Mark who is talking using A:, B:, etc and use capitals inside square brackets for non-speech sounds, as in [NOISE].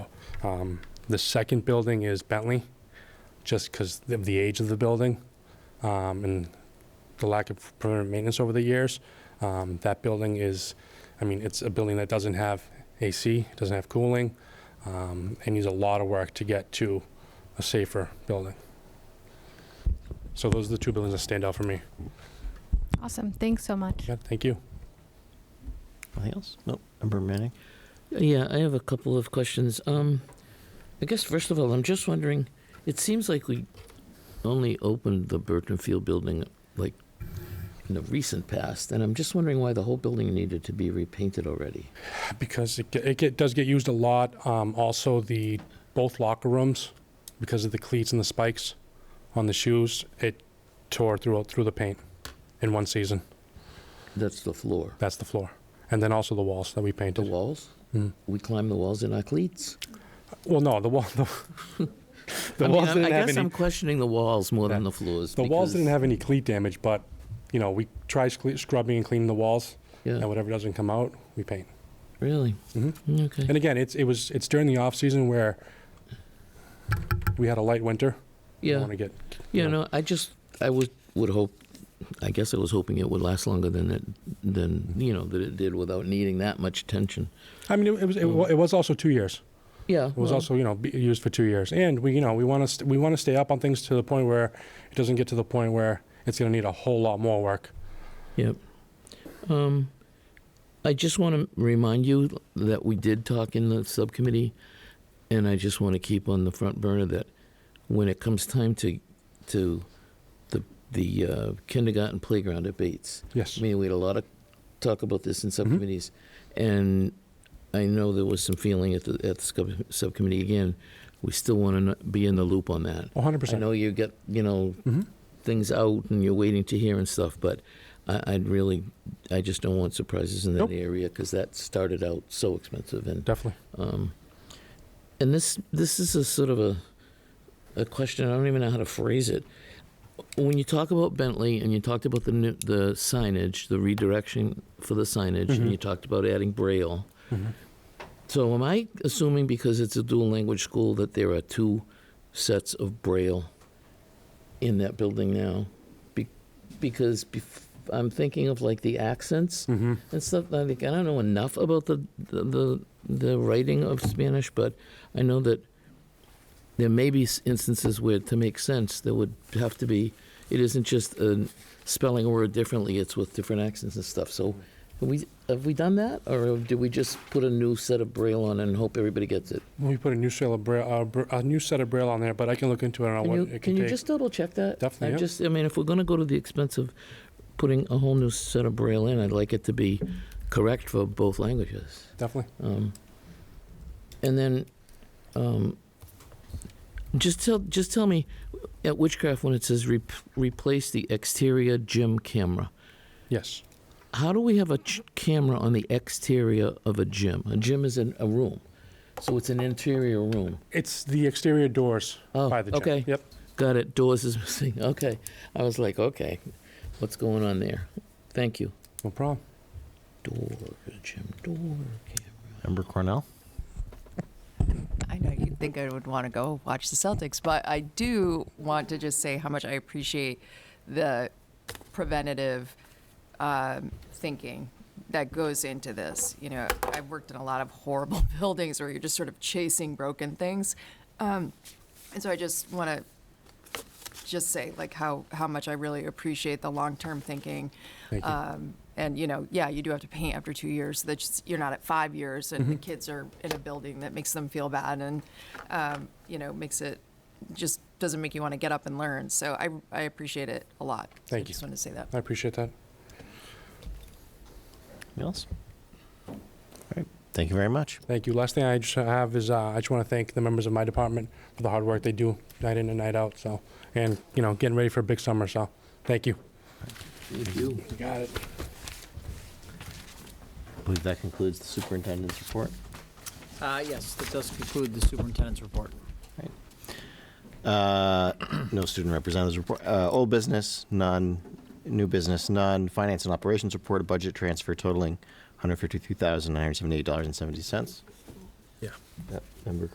A: Um, The second building is Bentley, just because of the age of the building um, and the lack of permanent maintenance over the years. Um, That building is, I mean, it's a building that doesn't have AC, doesn't have cooling, um, and needs a lot of work to get to a safer building. So those are the two buildings that stand out for me.
B: Awesome. Thanks so much.
A: Yeah, thank you.
C: Anything else? Nope. Member Manning?
D: Yeah, I have a couple of questions. Um, I guess first of all, I'm just wondering. It seems like we only opened the Burton Field building like in the recent past, and I'm just wondering why the whole building needed to be repainted already.
A: because it, ge- it get, does get used a lot. Um, also, the both locker rooms, because of the cleats and the spikes on the shoes, it tore through through the paint in one season.
D: That's the floor.
A: That's the floor, and then also the walls that we
D: The
A: painted.
D: walls.
A: Mm.
D: We climbed the walls in our cleats.
A: Well, no, the wall. The, the
D: I mean,
A: walls
D: I-
A: didn't
D: I
A: have
D: guess
A: any.
D: I'm questioning the walls more than
A: Yeah.
D: the floors.
A: the walls didn't
D: because-
A: have any cleat damage, but you know we try scle- scrubbing and cleaning the walls,
D: Yeah,
A: and whatever doesn't come out, we paint.
D: really.
A: Mhm.
D: Okay.
A: And again, it's it was it's during the off season where we had a light winter.
D: yeah.
A: Want to get
D: Yeah,
A: Yeah.
D: no, I just I would would hope. I guess I was hoping it would last longer than it than you know that it did without needing that much attention.
A: I mean, it, it was it, wa- it was also two years.
D: Yeah,
A: It was also, you know, be- used for two years. And we, you know, we want to we want to stay up on things to the point where it doesn't get to the point where it's going to need a whole lot more work.
D: Yep. Um, I just want to remind you that we did talk in the subcommittee, and I just want to keep on the front burner that when it comes time to to the the uh, kindergarten playground at Bates,
A: Yes.
D: I mean, we had a lot of talk about this in subcommittees, and I know there was some feeling at the, at the sub- subcommittee again. We still want to be in the loop on that.
A: 100%.
D: I know you get, you know,
A: Mhm.
D: things out and you're waiting to hear and stuff, but I, I'd really, I just don't want surprises in that
A: Nope.
D: area because that started out so expensive and
A: Definitely.
D: um, and this this is a sort of a a question. I don't even know how to phrase it. When you talk about Bentley and you talked about the new, the signage, the redirection for the signage,
A: Mhm.
D: and you talked about adding Braille.
A: Mhm.
D: Mm-hmm. So am I assuming because it's a dual language school that there are two sets of Braille in that building now? Be- because bef- I'm thinking of like the accents
A: hmm
D: and stuff. I think I don't know enough about the, the the the writing of Spanish, but I know that there may be s- instances where, to make sense, there would have to be. It isn't just a spelling a word differently; it's with different accents and stuff. So, have we have we done that, or did we just put a new set of braille on and hope everybody gets it?
A: We put a new set of braille, uh, br- a new set of braille on there, but I can look into it on
D: Can
A: what
D: you,
A: it
D: can
A: can,
D: you
A: take.
D: just double check that?
A: Definitely,
D: I
A: yeah.
D: just, I mean, if we're going to go to the expense of putting a whole new set of braille in, I'd like it to be correct for both languages.
A: Definitely.
D: Um, and then, um, just tell just tell me at Witchcraft when it says re- replace the exterior gym camera.
A: Yes.
D: How do we have a ch- camera on the exterior of a gym? A gym is in a room, so it's an interior room.
A: It's the exterior doors
D: Oh,
A: by the gym.
D: okay.
A: Yep.
D: Got it. Doors is [LAUGHS] missing. Okay, I was like, okay, what's going on there? Thank you.
A: No problem.
D: Door gym door camera.
C: Member Cornell?
E: I know you'd think I would want to go watch the Celtics, but I do want to just say how much I appreciate the preventative um, thinking that goes into this. You know, I've worked in a lot of horrible [LAUGHS] buildings where you're just sort of chasing broken things. Um, and so I just want to just say like how, how much I really appreciate the long-term thinking.
A: Thank you.
D: Uh,
E: Um, and you know, yeah, you do have to paint after two years. So that's just, you're not at five years, and the
A: Mm-hmm.
E: kids are in a building that makes them feel bad, and um, you know, makes it just doesn't make you want to get up and learn. So I I appreciate it a lot. So
A: Thank you.
E: I just wanted to say that.
A: I appreciate that.
C: Anything else? All right. Thank you very much.
A: Thank you. Last thing I just have is uh, I just want to thank the members of my department for the hard work they do night in and night out. So, and you know, getting ready for a big summer. So, thank you.
D: Thank you.
A: Got it.
C: I believe that concludes the superintendent's report.
F: Uh, Yes, that does conclude the superintendent's report.
C: Uh, no student representatives report. Uh, old business, none. New business, none. Finance and operations report, a budget transfer totaling $153,978.70.
A: Yeah.
C: Yep. Member